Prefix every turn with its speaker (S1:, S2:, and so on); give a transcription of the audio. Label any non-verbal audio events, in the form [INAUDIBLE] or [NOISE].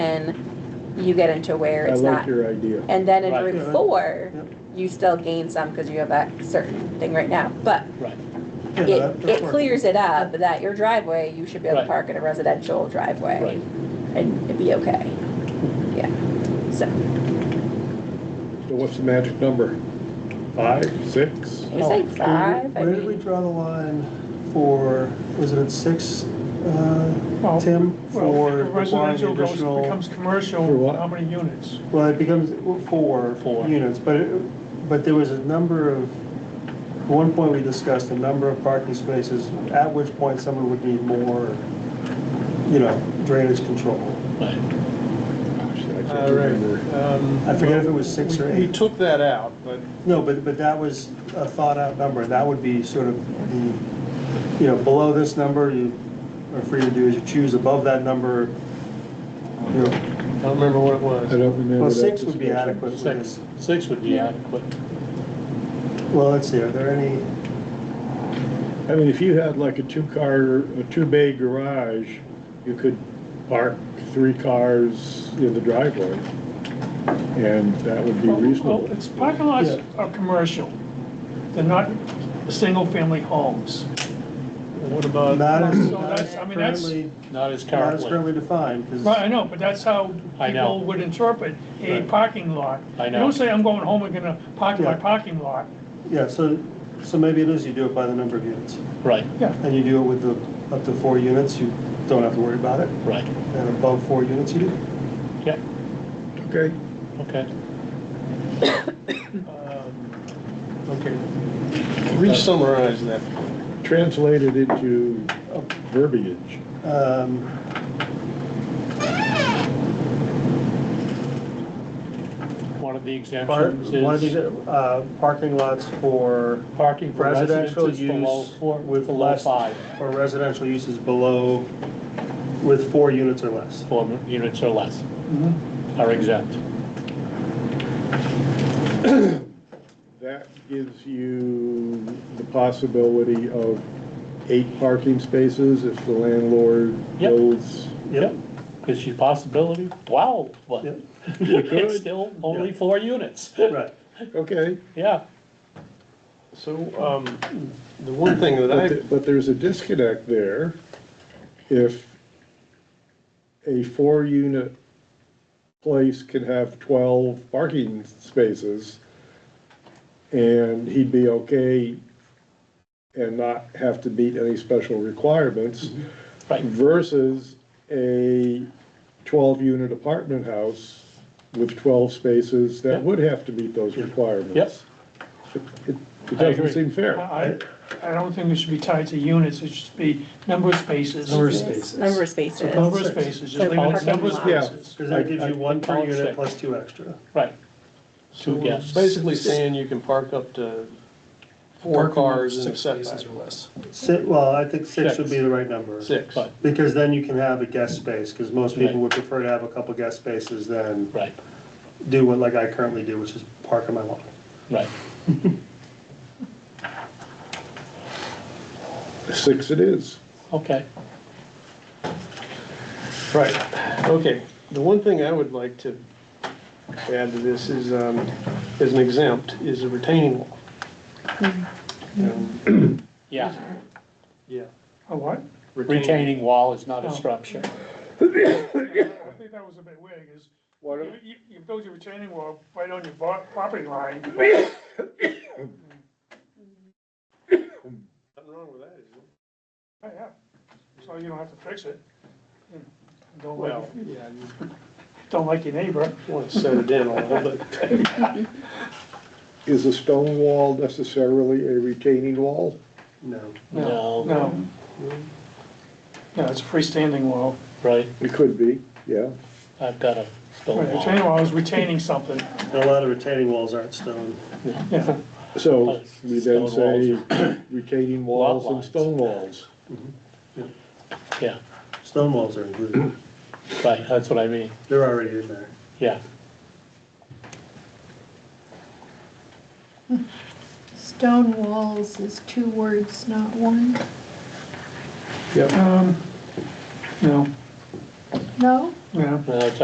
S1: then you get into where
S2: I
S1: it's
S2: like
S1: not.
S2: your idea.
S1: And then in
S3: Right.
S1: Route
S4: Yeah.
S1: Four,
S4: Yep.
S1: you still gain some because you have that certain thing right now, but
S3: Right.
S4: Yeah, that-
S1: it,
S4: that's
S1: it
S4: working.
S1: clears it up that your driveway, you should be able to
S3: Right.
S1: park in a residential driveway
S3: Right.
S1: and it'd be okay. Yeah, so
S2: So what's the magic number? Five, six?
S1: you say
S3: Oh,
S1: five, I
S4: Where did we
S1: mean,
S4: draw the line for, was it at six, uh,
S5: Well,
S4: Tim?
S5: Well,
S4: For
S5: if
S4: requiring
S5: residential goes,
S4: additional,
S5: becomes commercial,
S2: For what?
S5: how many units?
S4: well, it becomes four
S3: Four.
S4: units, but, it- but there was a number of, at one point we discussed a number of parking spaces, at which point someone would need more, you know, drainage control.
S3: Right.
S2: Gosh, I can't
S6: All right.
S2: remember.
S6: um,
S4: I forget if it was six or
S6: We
S4: eight.
S6: took that out, but
S4: No, but, but that was a thought-out number, that would be sort of the, you know, below this number, you are free to do as you choose, above that number, you know,
S6: I don't remember what it
S2: I
S6: was.
S2: don't remember.
S4: well,
S2: that
S4: six would be
S2: discussion.
S4: adequate for
S3: Six,
S4: this.
S3: six would be adequate.
S4: Well, let's see, are there any,
S2: I mean, if you had like a two-car, a two-bay garage, you could park three cars in the driveway, and that would be
S5: Well,
S2: reasonable.
S5: well, It's, parking lots are commercial, they're not single-family homes.
S3: What about,
S4: not as,
S5: So
S4: not as
S5: that's- I mean, that's-
S4: currently,
S3: not as
S4: not as
S3: currently?
S4: currently defined,
S5: Right, I
S4: because,
S5: know, but that's how
S3: I know.
S5: people would interpret a
S3: Right.
S5: parking lot.
S3: I
S5: You
S3: know.
S5: don't say, I'm going home, I'm gonna park in my
S4: Yeah.
S5: parking lot.
S4: yeah, so, so maybe it is, you do it by the number of units,
S3: Right,
S4: and you do it with the, up to four units, you don't have to worry about it,
S3: right,
S4: and above four units, you do.
S3: yeah,
S2: Okay,
S3: okay.
S6: Um, Okay. Re-summarize that.
S2: translated into verbiage.
S4: Um,
S3: One of the
S4: Part-
S3: exemptions
S4: One of these,
S3: is
S4: uh, parking lots for
S3: parking for residents
S4: residential
S3: is below
S4: use
S3: four,
S4: with
S3: below
S4: less,
S3: five,
S4: or residential uses below, with four units or less.
S3: four units or less
S4: Mm-hmm.
S3: are exempt.
S2: That gives you the possibility of eight parking spaces if the landlord
S3: Yep.
S2: builds.
S3: Yep, because your possibility, wow, but [LAUGHS]
S4: Yep.
S3: it's still only four units,
S4: Right.
S2: Okay,
S3: yeah.
S6: So, um, the one thing that
S2: but,
S6: I,
S2: th- but there's a disconnect there. If a four-unit place can have twelve parking spaces, and he'd be okay and not have to meet any special requirements.
S3: Right.
S2: versus a twelve-unit apartment house with twelve spaces that
S3: Yep.
S2: would have to meet those requirements. Yep. It it
S3: I
S2: doesn't
S3: agree.
S2: seem fair.
S5: I, I I don't think it should be tied to units, it should be number of spaces.
S6: Number of
S1: it's number of spaces.
S5: Number of spaces, just
S1: So
S5: leave it
S1: parking
S5: number of
S1: lot.
S2: Yeah.
S5: spaces.
S4: Because that gives you one per
S3: All
S4: unit
S3: six.
S4: plus two extra.
S3: Right,
S6: so
S3: Two
S6: we're
S3: guests.
S6: basically saying you can park up to four cars in a setback.
S4: Six, well, I think six would be the right number.
S6: Six.
S3: Right.
S4: Because then you can have a guest space, because most people
S3: Right.
S4: would prefer to have a couple guest spaces than
S3: right,
S4: do what like I currently do, which is park on my lawn.
S3: right,
S2: Six it is.
S3: okay.
S6: Right, okay. The one thing I would like to add to this is, um, as an exempt, is a retaining wall. Um,
S3: Yeah,
S6: Yeah.
S5: A what?
S3: retaining wall is
S4: Oh.
S3: not a structure.
S5: I think that was a bit weird, because
S2: Why
S5: you, you- you build your retaining wall right on your bo- property line,
S6: Nothing wrong with that, is there?
S5: yeah, Oh, yeah. so you don't have to fix it. Don't like,
S6: Well, yeah, you
S5: [LAUGHS] don't like your neighbor.
S6: want to set it in a little bit.
S4: [LAUGHS]
S2: Is a stone wall necessarily a retaining wall?
S4: No.
S3: No,
S5: No. No, it's a freestanding wall.
S3: right,
S2: It could be, yeah.
S3: I've got a
S6: Oh,
S5: Right,
S3: stone
S5: Retaining
S3: wall.
S5: wall is retaining something.
S4: And a lot of retaining walls aren't stone.
S5: Yeah,
S2: So we then say
S3: Stone
S2: retaining
S3: Lot
S2: walls and
S3: lines.
S2: stone walls.
S3: Yeah,
S4: Stone walls are included,
S3: right, that's what I mean,
S4: they're already in there.
S3: yeah.
S7: Stone walls is two words, not one.
S5: um, no,
S7: No?
S5: no.
S3: No, it's